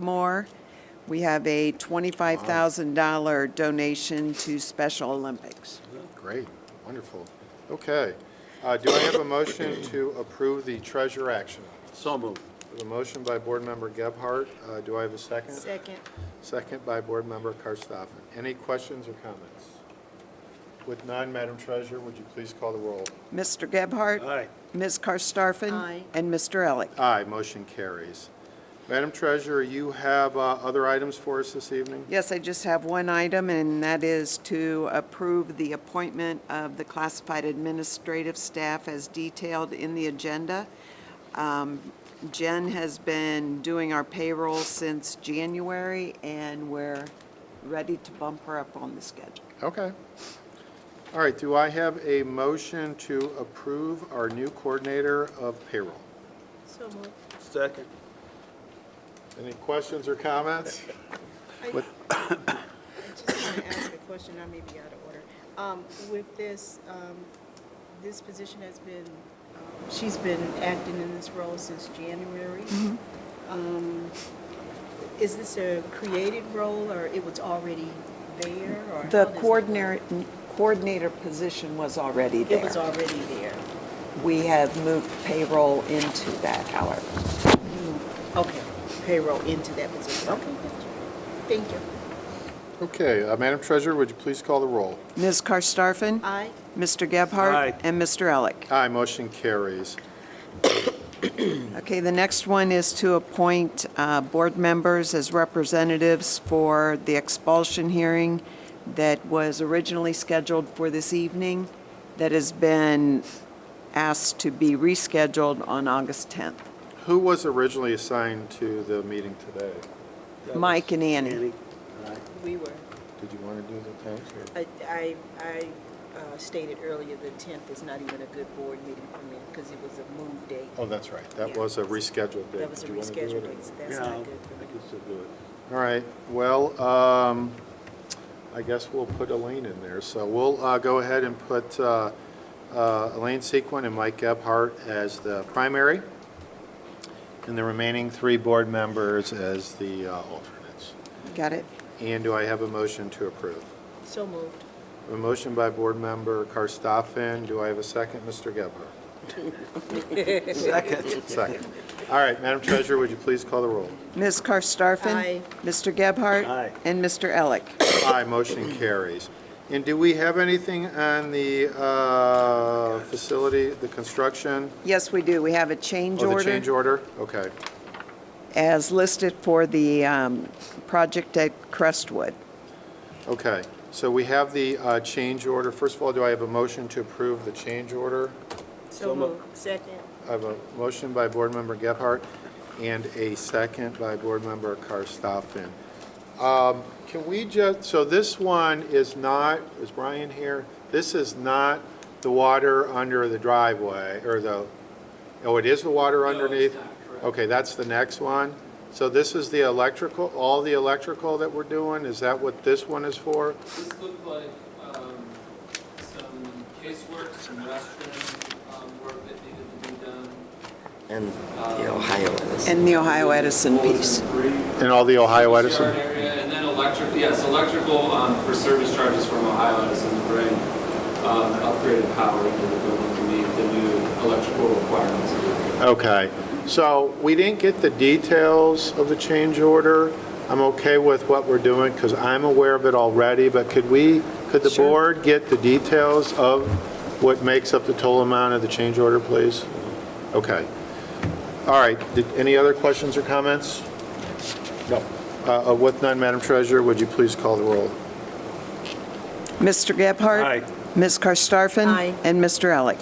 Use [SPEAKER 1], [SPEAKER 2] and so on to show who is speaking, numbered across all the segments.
[SPEAKER 1] Bachmore. We have a $25,000 donation to Special Olympics.
[SPEAKER 2] Great, wonderful. Okay. Uh, Do I have a motion to approve the treasure action?
[SPEAKER 3] So moved.
[SPEAKER 2] A motion by Board Member Gebhardt. Uh, Do I have a second?
[SPEAKER 4] Second.
[SPEAKER 2] Second by Board Member Karstoffen. Any questions or comments? With none, Madam Treasurer, would you please call the roll?
[SPEAKER 1] Mr. Gebhardt?
[SPEAKER 3] Aye.
[SPEAKER 1] Ms. Karstafen?
[SPEAKER 4] Aye.
[SPEAKER 1] And Mr. Elick?
[SPEAKER 2] Aye, motion carries. Madam Treasurer, you have uh, other items for us this evening?
[SPEAKER 1] Yes, I just have one item, and that is to approve the appointment of the classified administrative staff as detailed in the agenda. Um, Jen has been doing our payroll since January, and we're ready to bump her up on the schedule.
[SPEAKER 2] Okay. All right, do I have a motion to approve our new coordinator of payroll?
[SPEAKER 4] So moved.
[SPEAKER 3] Second.
[SPEAKER 2] Any questions or comments?
[SPEAKER 4] I
[SPEAKER 2] What-
[SPEAKER 4] I just want to ask a question, I may be out of order. Um, With this, um, this position has been, um, she's been acting in this role since January.
[SPEAKER 1] Mm-hmm.
[SPEAKER 4] Um, Is this a created role, or it was already there, or? how
[SPEAKER 1] The
[SPEAKER 4] does it work?
[SPEAKER 1] coordinator, coordinator position was already
[SPEAKER 4] It was
[SPEAKER 1] there.
[SPEAKER 4] already there.
[SPEAKER 1] We have moved payroll into that, however.
[SPEAKER 4] Okay, payroll into that position. Okay, thank you.
[SPEAKER 2] Okay, uh, Madam Treasurer, would you please call the roll?
[SPEAKER 1] Ms. Karstafen?
[SPEAKER 4] Aye.
[SPEAKER 1] Mr. Gebhardt?
[SPEAKER 3] Aye.
[SPEAKER 1] And Mr. Elick?
[SPEAKER 2] Aye, motion carries.
[SPEAKER 1] Okay, the next one is to appoint uh, board members as representatives for the expulsion hearing that was originally scheduled for this evening, that has been asked to be rescheduled on August 10th.
[SPEAKER 2] Who was originally assigned to the meeting today?
[SPEAKER 1] Mike and Annie.
[SPEAKER 3] Annie. Aye.
[SPEAKER 4] We were.
[SPEAKER 2] Did you want to do the thanks or?
[SPEAKER 4] I- I, I uh, stated earlier, the 10th is not even a good board meeting for me because it was a move date.
[SPEAKER 2] Oh, that's right, that
[SPEAKER 4] Yeah.
[SPEAKER 2] was a rescheduled date.
[SPEAKER 4] That was a
[SPEAKER 2] Did you wanna do it or-
[SPEAKER 4] rescheduled date, so that's
[SPEAKER 3] Yeah,
[SPEAKER 4] not good
[SPEAKER 3] I
[SPEAKER 4] for me.
[SPEAKER 3] can still do it.
[SPEAKER 2] All right, well, um, I guess we'll put Elaine in there. So we'll uh, go ahead and put uh, uh, Elaine Sequin and Mike Gebhardt as the primary, and the remaining three board members as the uh, alternates.
[SPEAKER 1] Got it?
[SPEAKER 2] And do I have a motion to approve?
[SPEAKER 4] So moved.
[SPEAKER 2] A motion by Board Member Karstoffen. Do I have a second, Mr. Gebhardt?
[SPEAKER 3] Second.
[SPEAKER 2] Second. All right, Madam Treasurer, would you please call the roll?
[SPEAKER 1] Ms. Karstafen?
[SPEAKER 4] Aye.
[SPEAKER 1] Mr. Gebhardt?
[SPEAKER 3] Aye.
[SPEAKER 1] And Mr. Elick?
[SPEAKER 2] Aye, motion carries. And do we have anything on the uh, facility, the construction?
[SPEAKER 1] Yes, we do. We have a change
[SPEAKER 2] or
[SPEAKER 1] order.
[SPEAKER 2] Oh, the change order? Okay,
[SPEAKER 1] As listed for the um, project at Crestwood.
[SPEAKER 2] okay. So we have the uh, change order. First of all, do I have a motion to approve the change order?
[SPEAKER 4] So moved. Second.
[SPEAKER 2] I have a motion by Board Member Gebhardt and a second by Board Member Karstoffen. Um, Can we just, so this one is not, is Brian here? This is not the water under the driveway, or the, oh, it is the water underneath? Okay, that's the next one. So this is the electrical, all the electrical that we're doing? Is that what this one is for?
[SPEAKER 5] This looked like um, some casework, some restroom um, work that needed to be done.
[SPEAKER 6] and the Ohio Edison.
[SPEAKER 1] And the Ohio Edison piece.
[SPEAKER 2] And all the Ohio Edison?
[SPEAKER 5] Yard area, And then electric, yes, electrical um, for service charges from Ohio Edison to bring um, upgraded power into the building to meet the new electrical requirements.
[SPEAKER 2] Okay, so we didn't get the details of the change order. I'm okay with what we're doing because I'm aware of it already, but could we, could the
[SPEAKER 1] Sure.
[SPEAKER 2] board get the details of what makes up the total amount of the change order, please? Okay. All right, Did- any other questions or comments? No. Uh, uh, With none, Madam Treasurer, would you please call the roll?
[SPEAKER 1] Mr. Gebhardt?
[SPEAKER 3] Aye.
[SPEAKER 1] Ms. Karstafen?
[SPEAKER 4] Aye.
[SPEAKER 1] And Mr. Elick?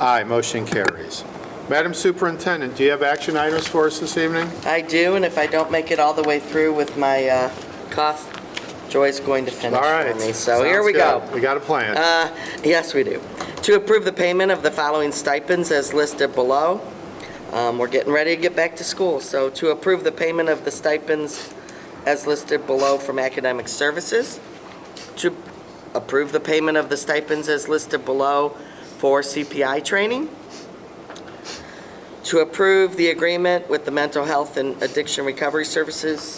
[SPEAKER 2] Aye, motion carries. Madam Superintendent, do you have action items for us this evening?
[SPEAKER 6] I do, and if I don't make it all the way through with my uh, cough, Joy's going to finish
[SPEAKER 2] All right.
[SPEAKER 6] for me. So here
[SPEAKER 2] Sounds
[SPEAKER 6] we go. Uh,
[SPEAKER 2] good. We got a plan.
[SPEAKER 6] Yes, we do. To approve the payment of the following stipends as listed below. Um, We're getting ready to get back to school, so to approve the payment of the stipends as listed below from academic services, to approve the payment of the stipends as listed below for CPI training, to approve the agreement with the Mental Health and Addiction Recovery Services